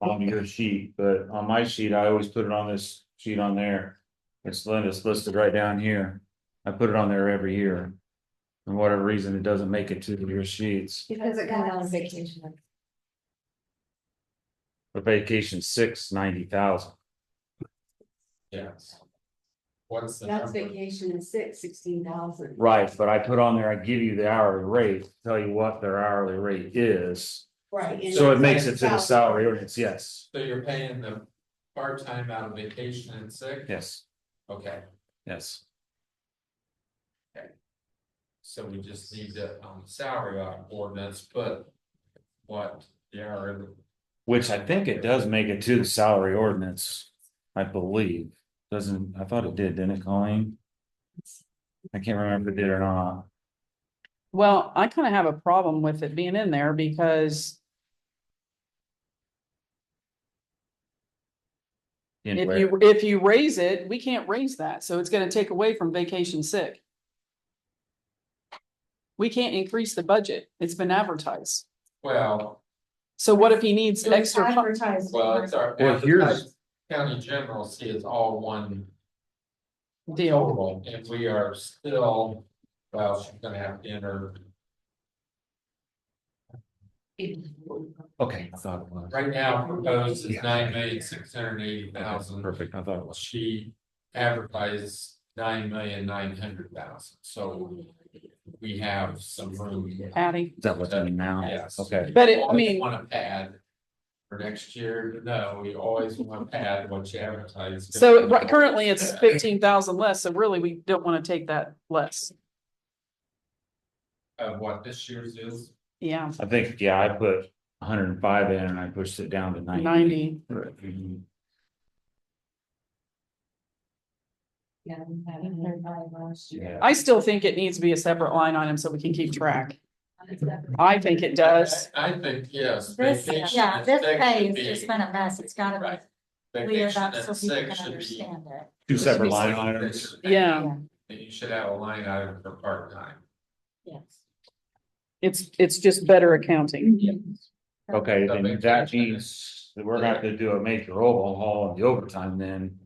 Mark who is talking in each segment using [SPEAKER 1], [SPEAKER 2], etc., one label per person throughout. [SPEAKER 1] on your sheet, but on my sheet, I always put it on this sheet on there. It's, li- it's listed right down here. I put it on there every year. For whatever reason, it doesn't make it to your sheets.
[SPEAKER 2] Because it comes out on vacation.
[SPEAKER 1] For vacation, six ninety thousand.
[SPEAKER 3] Yes. What's the
[SPEAKER 2] That's
[SPEAKER 3] number?
[SPEAKER 2] vacation is six, sixteen thousand.
[SPEAKER 1] Right, but I put on there, I give you the hourly rate, tell you what their hourly rate is.
[SPEAKER 2] Right. and
[SPEAKER 1] So it
[SPEAKER 2] that's
[SPEAKER 1] makes
[SPEAKER 2] like
[SPEAKER 1] it to the salary ordinance, yes,
[SPEAKER 3] So you're paying the part-time out of vacation and sick?
[SPEAKER 1] yes,
[SPEAKER 3] Okay,
[SPEAKER 1] yes.
[SPEAKER 3] so we just need to, um, salary out ordinance, but what, yeah, or-
[SPEAKER 1] Which I think it does make it to the salary ordinance, I believe. Doesn't, I thought it did, didn't it, Colleen? I can't remember if it did or not.
[SPEAKER 4] Well, I kind of have a problem with it being in there because if
[SPEAKER 1] Anyway,
[SPEAKER 4] you, if you raise it, we can't raise that. So it's gonna take away from vacation sick. We can't increase the budget. It's been advertised.
[SPEAKER 3] well,
[SPEAKER 4] So what if he needs
[SPEAKER 2] It was
[SPEAKER 4] extra? fu-
[SPEAKER 2] advertised.
[SPEAKER 3] well, it's our.
[SPEAKER 1] Well, here's-
[SPEAKER 3] County general see it's all one
[SPEAKER 4] Deal.
[SPEAKER 3] total, and we are still, well, she's gonna have to enter,
[SPEAKER 1] okay, I thought it was.
[SPEAKER 3] right now proposed
[SPEAKER 1] Yeah.
[SPEAKER 3] is nine million, six hundred and eighty thousand.
[SPEAKER 1] Perfect, I thought it was.
[SPEAKER 3] She advertises nine million, nine hundred thousand, so we have some room.
[SPEAKER 4] Patty,
[SPEAKER 1] Is that what's in it now?
[SPEAKER 3] Yes.
[SPEAKER 1] Okay,
[SPEAKER 4] But it- I
[SPEAKER 3] Always
[SPEAKER 4] mean-
[SPEAKER 3] Wanna add. For next year, no, we always wanna add what you advertise.
[SPEAKER 4] so right- currently it's fifteen thousand less. So really, we don't want to take that less.
[SPEAKER 3] Of what this year's is,
[SPEAKER 4] Yeah,
[SPEAKER 1] I think, yeah, I put hundred and five in and I pushed it down to ninety.
[SPEAKER 4] ninety.
[SPEAKER 1] Mhm.
[SPEAKER 2] Yeah, we had it there by last year.
[SPEAKER 1] Yeah.
[SPEAKER 4] I still think it needs to be a separate line item so we can keep track.
[SPEAKER 2] It's
[SPEAKER 4] I think it does.
[SPEAKER 3] I I think, yes.
[SPEAKER 5] This,
[SPEAKER 3] vacation
[SPEAKER 5] yeah,
[SPEAKER 3] and
[SPEAKER 5] this
[SPEAKER 3] sick
[SPEAKER 5] pay
[SPEAKER 3] should
[SPEAKER 5] has just
[SPEAKER 3] be-
[SPEAKER 5] been a mess. It's gotta
[SPEAKER 3] Right.
[SPEAKER 5] be cleared
[SPEAKER 3] Vacation
[SPEAKER 5] up
[SPEAKER 3] and
[SPEAKER 5] so people
[SPEAKER 3] sick
[SPEAKER 5] can
[SPEAKER 3] should be-
[SPEAKER 5] understand it.
[SPEAKER 1] Two separate line items.
[SPEAKER 4] Yeah.
[SPEAKER 3] And You should have a line item for part-time.
[SPEAKER 5] Yes.
[SPEAKER 4] It's, it's just better accounting.
[SPEAKER 1] Okay,
[SPEAKER 3] That
[SPEAKER 1] then
[SPEAKER 3] makes
[SPEAKER 1] that
[SPEAKER 3] sense.
[SPEAKER 1] means that we're gonna have to do a major overhaul on the overtime then.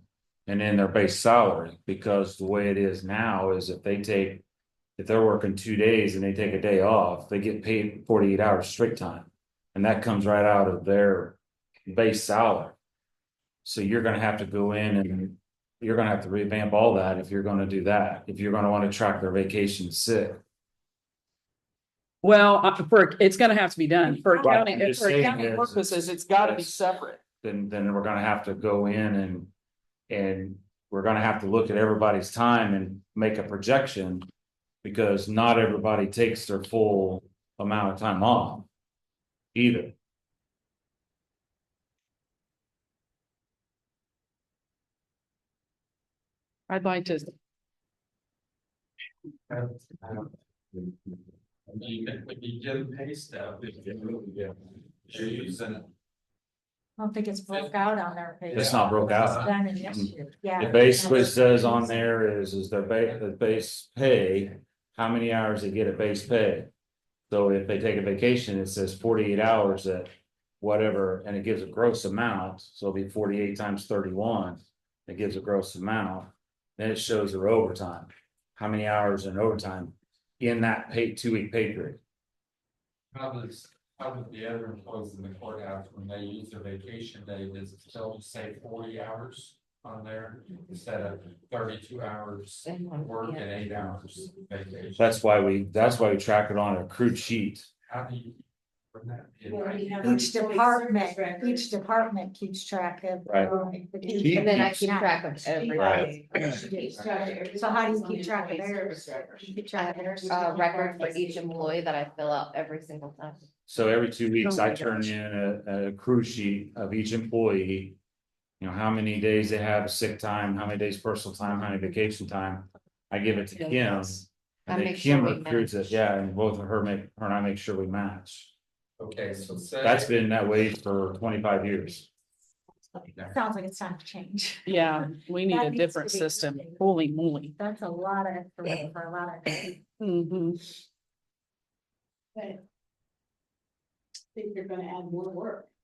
[SPEAKER 1] And then their base salary, because the way it is now is if they take. If they're working two days and they take a day off, they get paid forty-eight hours straight time. And that comes right out of their base salary. So you're gonna have to go in and you're gonna have to revamp all that if you're gonna do that, if you're gonna wanna track their vacation sick.
[SPEAKER 4] Well, uh, for, it's gonna have to be done. For
[SPEAKER 1] Right,
[SPEAKER 4] accounting,
[SPEAKER 1] I'm just
[SPEAKER 4] for
[SPEAKER 1] saying
[SPEAKER 4] accounting
[SPEAKER 1] is-
[SPEAKER 4] purposes, it's gotta be
[SPEAKER 1] Yes.
[SPEAKER 4] separate.
[SPEAKER 1] then then we're gonna have to go in and. And we're gonna have to look at everybody's time and make a projection. Because not everybody takes their full amount of time off. Either,
[SPEAKER 4] I'd like to,
[SPEAKER 3] I don't- I don't- I mean, if you give pay stub, if you really get, you're using.
[SPEAKER 5] I don't think it's broke out on their pay.
[SPEAKER 1] it's not broke out.
[SPEAKER 5] Done in this year, yeah.
[SPEAKER 1] It basically says on there is is their ba- the base pay, how many hours they get a base pay. So if they take a vacation, it says forty-eight hours at whatever, and it gives a gross amount, so it'll be forty-eight times thirty-one. It gives a gross amount, then it shows their overtime, how many hours in overtime in that pay, two-week pay period.
[SPEAKER 3] How does, how did the other employees in the courthouse, when they use their vacation day, does it still say forty hours on there? Instead of thirty-two hours work and eight hours vacation?
[SPEAKER 1] That's why we, that's why we track it on a crude sheet.
[SPEAKER 3] How do you? bring that in?
[SPEAKER 5] Each department, each department keeps track of.
[SPEAKER 1] Right.
[SPEAKER 2] And then I keep
[SPEAKER 5] Yeah.
[SPEAKER 2] track of everything.
[SPEAKER 1] Right.
[SPEAKER 5] So how do you keep track of theirs? You keep
[SPEAKER 2] I
[SPEAKER 5] track of theirs.
[SPEAKER 2] have a uh, record for each employee that I fill out every single time.
[SPEAKER 1] So every two weeks,
[SPEAKER 4] Oh my
[SPEAKER 1] I turn
[SPEAKER 4] gosh.
[SPEAKER 1] in a, a crew sheet of each employee. You know, how many days they have sick time, how many days personal time, how many vacation time. I give it to
[SPEAKER 2] Yeah,
[SPEAKER 1] Kim.
[SPEAKER 2] I
[SPEAKER 1] And then
[SPEAKER 2] make sure
[SPEAKER 1] Kim
[SPEAKER 2] we
[SPEAKER 1] recruits it,
[SPEAKER 2] match.
[SPEAKER 1] yeah, and both of her make, her and I make sure we match.
[SPEAKER 3] Okay, so say.
[SPEAKER 1] That's been that way for twenty-five years.
[SPEAKER 5] Sounds like it's time to change.
[SPEAKER 4] yeah, we need
[SPEAKER 5] That
[SPEAKER 4] a
[SPEAKER 5] needs to
[SPEAKER 4] different
[SPEAKER 5] be
[SPEAKER 4] system.
[SPEAKER 5] updated.
[SPEAKER 4] Holy moly.
[SPEAKER 5] That's a lot of, information for a lot of.
[SPEAKER 4] Mhm.
[SPEAKER 2] Think you're gonna add more work.